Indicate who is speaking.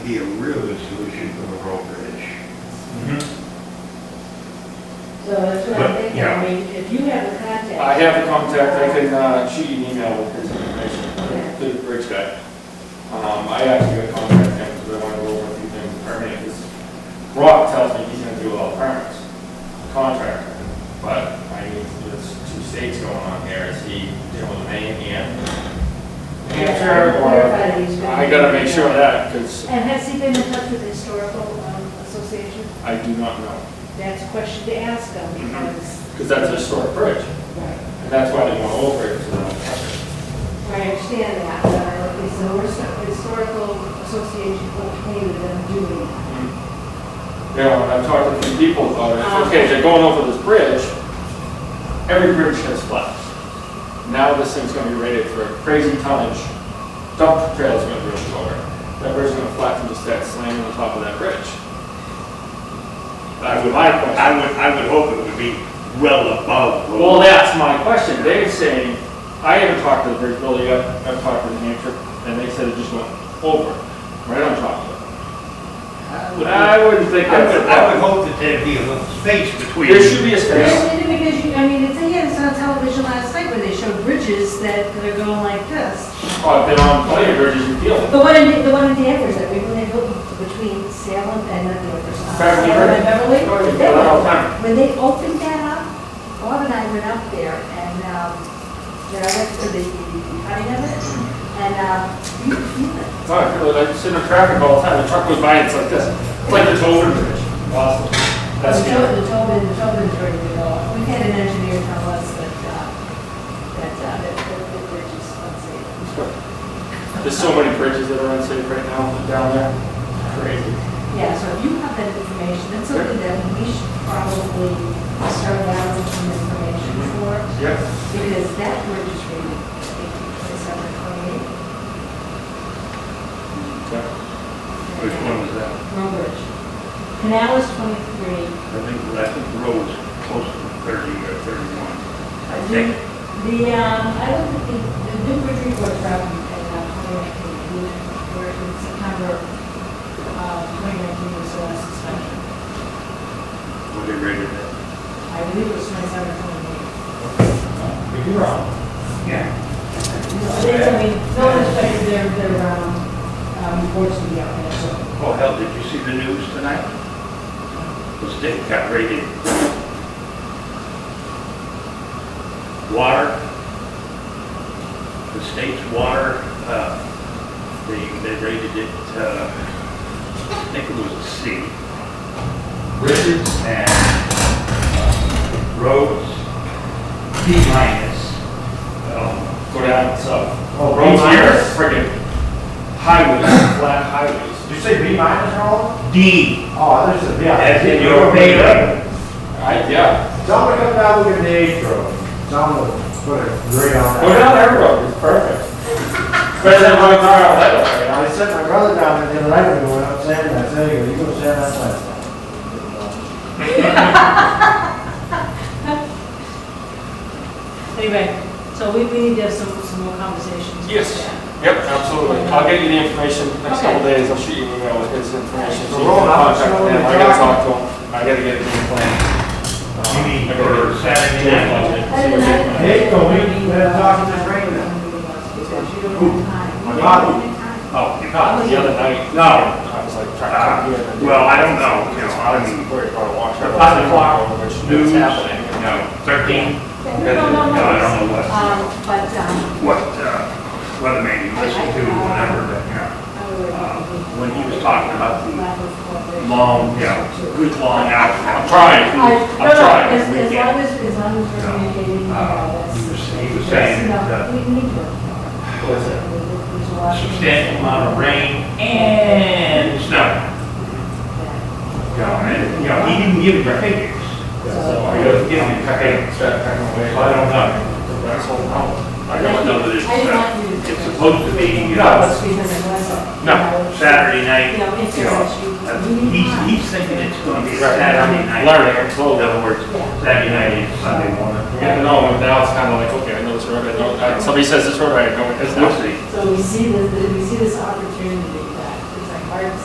Speaker 1: be a real good solution for the road bridge.
Speaker 2: Mm-hmm.
Speaker 3: So that's what
Speaker 4: But,
Speaker 3: I'm thinking,
Speaker 4: yeah.
Speaker 3: I mean, if you have a contact.
Speaker 2: I have a contact, I can uh, shoot you an email with his information,
Speaker 3: Okay.
Speaker 2: to the bridge guy. Um, I actually got to contact him because I want to go over a few things with permitting, because Rob tells me he's gonna do all the permits, contractor. But I need, there's two states going on here, is he dealing with Maine and New Hampshire? or-
Speaker 3: Clarify these.
Speaker 2: I gotta make sure of that, because
Speaker 5: And has he been in touch with the historical um, association?
Speaker 2: I do not know,
Speaker 3: That's a question to ask them
Speaker 2: Mm-hmm.
Speaker 3: because.
Speaker 2: because that's a historic bridge,
Speaker 3: Right,
Speaker 2: and that's why they want over it, so.
Speaker 3: I understand that, but is the his- historical association okay with them doing that?
Speaker 2: Yeah, when I've talked to a few people about it, it's okay, they're going over this bridge, every bridge has flags. Now this thing's gonna be rated for crazy tonnage, dump trail's gonna be over, that bridge's gonna flatten just that slamming on top of that bridge.
Speaker 4: I would, like- I would, I would hope it would be well above. what-
Speaker 2: Well, that's my question, they were saying, I haven't talked to the bridge builder yet, I've talked to New Hampshire, and they said it just went over, right on top of it.
Speaker 1: I would, I
Speaker 2: I wouldn't think that's
Speaker 1: would,
Speaker 2: a
Speaker 1: I would
Speaker 2: problem.
Speaker 1: hope that there'd be a little space between.
Speaker 2: There should be a space.
Speaker 5: Yes, because you, I mean, it's, yeah, it's on television last night when they showed bridges that that are going like this.
Speaker 2: Oh, I've been on plenty of bridges in Field.
Speaker 5: The one in, the one in Danvers, that we, when they built between Salem and then the other side.
Speaker 2: Beverly
Speaker 5: Salem
Speaker 2: Hills.
Speaker 5: and Beverly.
Speaker 2: Beverly Hills.
Speaker 5: They
Speaker 2: Yeah.
Speaker 5: were- When they opened that up, Bob and I went up there and, um, then I went to the the cutting of it. And, um, you, you,
Speaker 2: Oh, I feel like I sit in traffic all the time, the truck goes by and it's like this, it's like the Tolbert Bridge. Awesome. That's
Speaker 5: The
Speaker 2: scary.
Speaker 5: Tobin, the Tobin, the Tobin's ready to go. We had an engineer tell us that, uh, that, uh, that that the bridge is unsafe.
Speaker 2: There's so many bridges that are unsafe right now down there. Crazy.
Speaker 5: Yeah, so if you have that information, that's something that we should probably start out with some information for,
Speaker 2: Yeah.
Speaker 5: because that bridge is ready to take December twenty-eighth.
Speaker 4: Which one was that?
Speaker 5: Road bridge. Canal is twenty-three.
Speaker 4: I think, I think the road was close to thirty or thirty-one. I
Speaker 5: The,
Speaker 4: think.
Speaker 5: the, um, I looked at the, the new bridge report from, uh, twenty nineteen, where in September, uh, twenty nineteen was the last inspection.
Speaker 4: What they rated it.
Speaker 5: I believe it was twenty-seven, twenty-eight.
Speaker 2: If you're wrong.
Speaker 4: Yeah.
Speaker 5: They, I mean, no one expected their, their, um, um, reports to be out there, so.
Speaker 4: Oh, hell, did you see the news tonight? The state got rated. Water. The state's water, uh, they, they rated it, uh, I think it was a C. Bridges and uh, roads, B minus. Um,
Speaker 2: Go down south.
Speaker 1: Oh,
Speaker 2: Roads here are
Speaker 1: minus?
Speaker 2: friggin' highways, flat highways.
Speaker 1: Did you say B minus, Roland?
Speaker 4: D,
Speaker 1: Oh, there's a, yeah.
Speaker 4: as in your rating.
Speaker 2: I, yeah.
Speaker 1: Someone come down, look at the age road. Someone put a grade on that.
Speaker 2: Go down every road, it's perfect. Better than my car, I don't know.
Speaker 1: I sent my brother down there the other night, and we went up sand, I said, "Anyway, you go sand that last
Speaker 5: Anyway, so we, we need to have some, some more conversations.
Speaker 2: Yes, yep, absolutely. I'll get you the information next
Speaker 5: Okay.
Speaker 2: couple days, I'll shoot you an email with his information. So you
Speaker 1: Roll
Speaker 2: can
Speaker 1: out,
Speaker 2: contact
Speaker 1: show
Speaker 2: him.
Speaker 1: the
Speaker 2: I gotta
Speaker 1: doc.
Speaker 2: talk to him, I gotta get a game plan. Um,
Speaker 4: You mean
Speaker 2: I gotta
Speaker 4: for
Speaker 2: do
Speaker 4: Saturday
Speaker 2: a
Speaker 4: night?
Speaker 2: budget, see what game plan.
Speaker 1: Hey, go, we need to talk to this regular.
Speaker 5: My
Speaker 1: God.
Speaker 4: Oh, you
Speaker 2: Not
Speaker 4: got
Speaker 2: the
Speaker 4: it.
Speaker 2: other night.
Speaker 4: No.
Speaker 2: I
Speaker 4: Ah,
Speaker 2: was like trying to. get it.
Speaker 4: Well, I don't know, you know, I mean-
Speaker 2: Worried about a watch.
Speaker 4: The five o'clock
Speaker 2: Which is
Speaker 4: News,
Speaker 2: happening.
Speaker 4: no, 13,
Speaker 5: No, no,
Speaker 4: no,
Speaker 5: no.
Speaker 4: I don't know what,
Speaker 5: Um, but, um,
Speaker 4: what, uh, weather man you listen to, whatever, but, yeah.
Speaker 5: I would.
Speaker 4: Uh, When he was talking about the
Speaker 5: the
Speaker 4: long, you know, good long hours, Oh, I'm trying,
Speaker 5: I, no,
Speaker 4: I'm
Speaker 5: no,
Speaker 4: trying
Speaker 5: as, as
Speaker 4: this
Speaker 5: long
Speaker 4: weekend.
Speaker 5: as, as long as we're communicating, you know,
Speaker 4: Uh,
Speaker 5: that's.
Speaker 4: He was, he
Speaker 5: that's
Speaker 4: was saying
Speaker 5: enough.
Speaker 4: that
Speaker 5: We need to.
Speaker 4: What is it?
Speaker 5: There's a
Speaker 4: a
Speaker 5: lot of-
Speaker 4: substantial amount of rain and snow. You know, and, you know, he didn't give the figures, so
Speaker 2: Oh,
Speaker 4: I gotta give him a couple,
Speaker 2: Start packing away.
Speaker 4: so I don't know.
Speaker 2: That's all wrong.
Speaker 4: I don't know that it's,
Speaker 5: I didn't want you
Speaker 4: uh,
Speaker 5: to-
Speaker 4: it's supposed to be, you
Speaker 5: No,
Speaker 4: know,
Speaker 5: it's because it wasn't.
Speaker 4: no, Saturday night,
Speaker 5: You know, it's
Speaker 4: you
Speaker 5: just
Speaker 4: know,
Speaker 5: that you-
Speaker 4: Uh,
Speaker 5: you need
Speaker 4: He's,
Speaker 5: time.
Speaker 4: he's thinking it's gonna be
Speaker 2: Right.
Speaker 4: Saturday night.
Speaker 2: Learning, I'm slowly.
Speaker 4: In other words, Saturday night is Sunday morning.
Speaker 2: Yeah, no, now it's kind of like, okay, I know this road, I know, I- somebody says this road, I know it, it's
Speaker 4: We'll
Speaker 2: not.
Speaker 4: see.
Speaker 5: So we see this, we see this opportunity.